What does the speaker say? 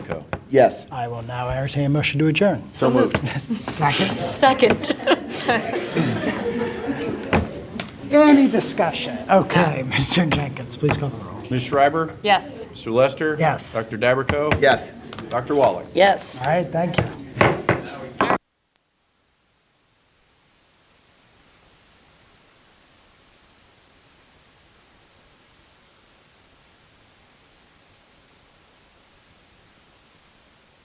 Yes. I will now entertain a motion to adjourn. So moved. Second. Second. Any discussion? Okay, Mr. Jenkins, please call the roll. Ms. Schreiber? Yes. Mr. Lester? Yes. Dr. Dabberco? Yes. Dr. Wallach? Yes. All right, thank you.